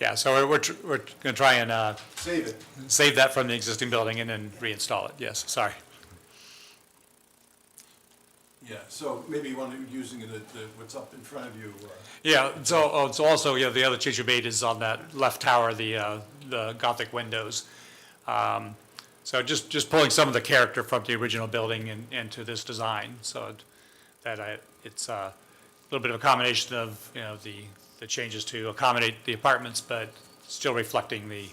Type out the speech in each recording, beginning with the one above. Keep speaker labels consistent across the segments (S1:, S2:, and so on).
S1: Yeah, so we're, we're, tr- we're gonna try and, uh,
S2: Save it.
S1: save that from the existing building and then reinstall it, yes, sorry.
S2: Yeah, so maybe you want to, using it, at the- what's up in front of you. uh,
S1: Yeah, so, oh, so also, yeah, the other change we made is on that left tower, the, uh, the Gothic windows. Um, So just, just pulling some of the character from the original building and, into this design, so it- that I, it's uh, a little bit of a combination of, you know, the, the changes to accommodate the apartments, but still reflecting the,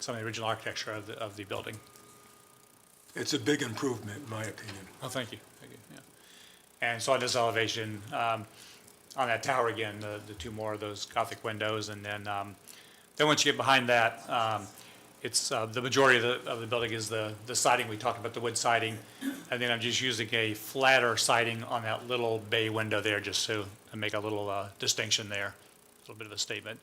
S1: some of the original architecture of the, of the building.
S3: It's a big improvement, in my opinion.
S1: Oh, thank you, thank you, yeah. And so on this elevation, um, on that tower again, the, the two more of those Gothic windows, and then, um, then once you get behind that, um, it's, uh, the majority of the, of the building is the, the siding, we talked about the wood siding, and then I'm just using a flatter siding on that little bay window there, just so, to make a little, uh, distinction there, a little bit of a statement.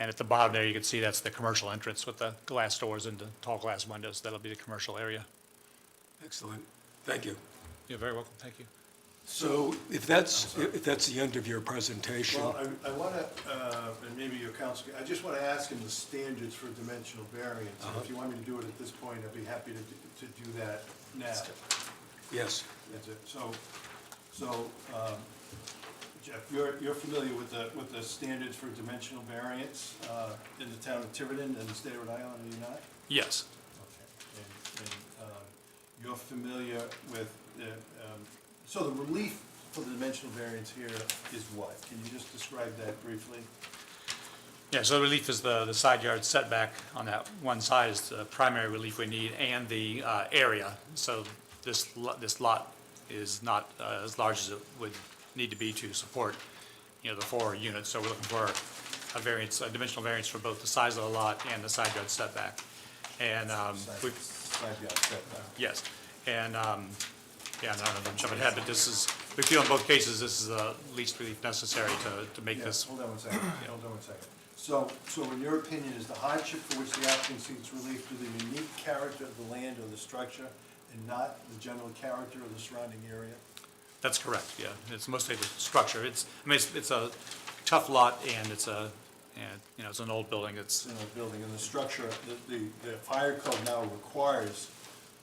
S1: And at the bottom there, you can see that's the commercial entrance with the glass doors and the tall glass windows, that'll be the commercial area.
S3: Excellent. Thank you.
S1: You're very welcome, thank you.
S3: So if that's, if that's the end of your presentation,
S2: Well, I, I want to, and maybe your counsel, I just want to ask him the standards for dimensional variance.
S3: Uh-huh.
S2: And If you want me to do it at this point, I'd be happy to, do- to do that now.
S3: yes,
S2: That's it. So, so, um, Jeff, you're, you're familiar with the, with the standards for dimensional variance uh, in the town of Tiverton and the state of Rhode Island, are you not?
S1: Yes.
S2: Okay, and, and, um, you're familiar with the, um, so the relief for the dimensional variance here is what? Can you just describe that briefly?
S1: Yeah, so the relief is the, the side yard setback on that one side is the primary relief we need and the uh, area. So this, lo- this lot is not uh, as large as it would need to be to support, you know, the four units. So we're looking for a variance, a dimensional variance for both the size of the lot and the side yard setback. And um,
S2: Side-
S1: we've,
S2: Side yard setback.
S1: Yes, and, um, yeah, I don't know if I'm jumping ahead, but this is, we feel in both cases, this is the least relief necessary to, to make
S2: Yeah,
S1: this.
S2: Hold on one second, hold on one second. So, so in your opinion, is the hardship for which the applicant seeks relief to the unique character of the land or the structure and not the general character of the surrounding area?
S1: That's correct, yeah. It's mostly the structure. It's, I mean, it's, it's a tough lot and it's a, and, you know, it's an old building. It's,
S2: in the building, and the structure, the, the, the fire code now requires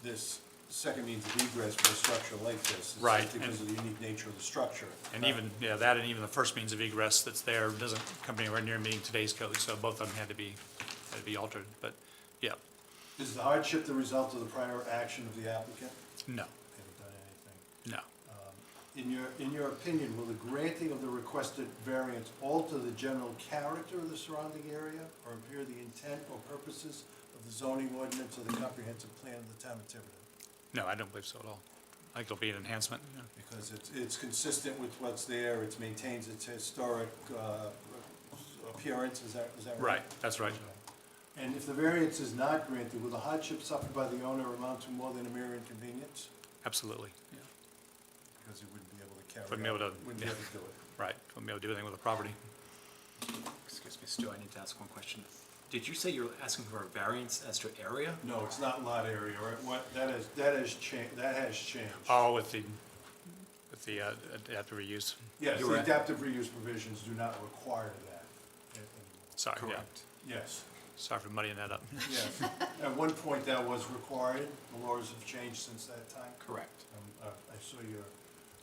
S2: this second means of egress for a structure like this. It's
S1: Right,
S2: Because of the unique nature of the structure.
S1: and even, yeah, that and even the first means of egress that's there doesn't come anywhere near meeting today's code, so both of them had to be, had to be altered, but, yeah,
S2: Uh, Is the hardship the result of the prior action of the applicant?
S1: no,
S2: Haven't done anything.
S1: no.
S2: In your, in your opinion, will the granting of the requested variance alter the general character of the surrounding area or impair the intent or purposes of the zoning ordinance or the comprehensive plan of the town of Tiverton?
S1: No, I don't believe so at all. I think it'll be an enhancement, yeah.
S2: Because it's, it's consistent with what's there, it maintains its historic uh, appearance, is that, is that right?
S1: Right, that's right.
S2: And if the variance is not granted, will the hardship suffered by the owner amount to more than a mere inconvenience?
S1: Absolutely, yeah.
S2: Because he wouldn't be able to carry out.
S1: Wouldn't be able to-
S2: Wouldn't be able to do it.
S1: Right, wouldn't be able to do anything with the property.
S4: Excuse me, Stu, I need to ask one question. Did you say you're asking for a variance as to area?
S2: No, it's not lot area, or what, that is, that has changed, that has changed.
S1: All with the, with the uh, adaptive reuse,
S2: Yes,
S4: You
S2: the
S4: were-
S2: adaptive reuse provisions do not require that.
S1: sorry, Uh, yeah.
S2: Yes,
S1: Sorry for muddying that up.
S2: yes. At one point, that was required, the laws have changed since that time.
S4: Correct.
S2: Um, I I saw your,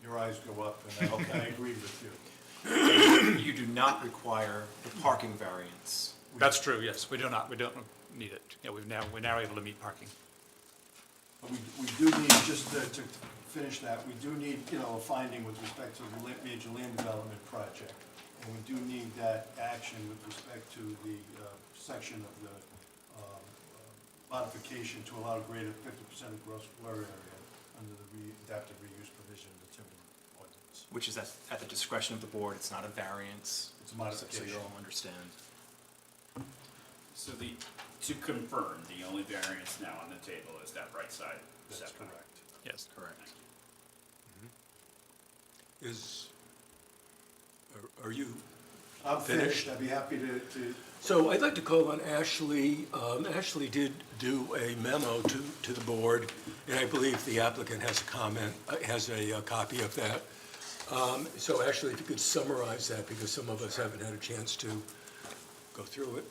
S2: your eyes go up, and I- I agree with you.
S4: You do not require the parking variance.
S1: That's true, yes, we do not, we don't need it. Yeah, we've now, we're now able to meet parking.
S2: But We, we do need, just to to finish that, we do need, you know, a finding with respect to the la- major land development project. And we do need that action with respect to the uh, section of the um, uh, modification to allow greater fifty percent of gross floor area under the re- adaptive reuse provision of the timber ordinance.
S4: Which is at, at the discretion of the board, it's not a variance.
S2: It's a
S4: So- So
S2: modification.
S4: you all understand.
S5: So the, to confirm, the only variance now on the table is that right side
S2: That's
S5: setback.
S2: correct.
S1: Yes,
S4: Correct.
S3: is, are- are you
S2: I'm
S3: Finished?
S2: finished, I'd be happy to, to,
S3: So I'd like to call on Ashley. Um, Ashley did do a memo to, to the board, and I believe the applicant has a comment, uh, has a uh, copy of that. Um, So Ashley, if you could summarize that, because some of us haven't had a chance to go through it.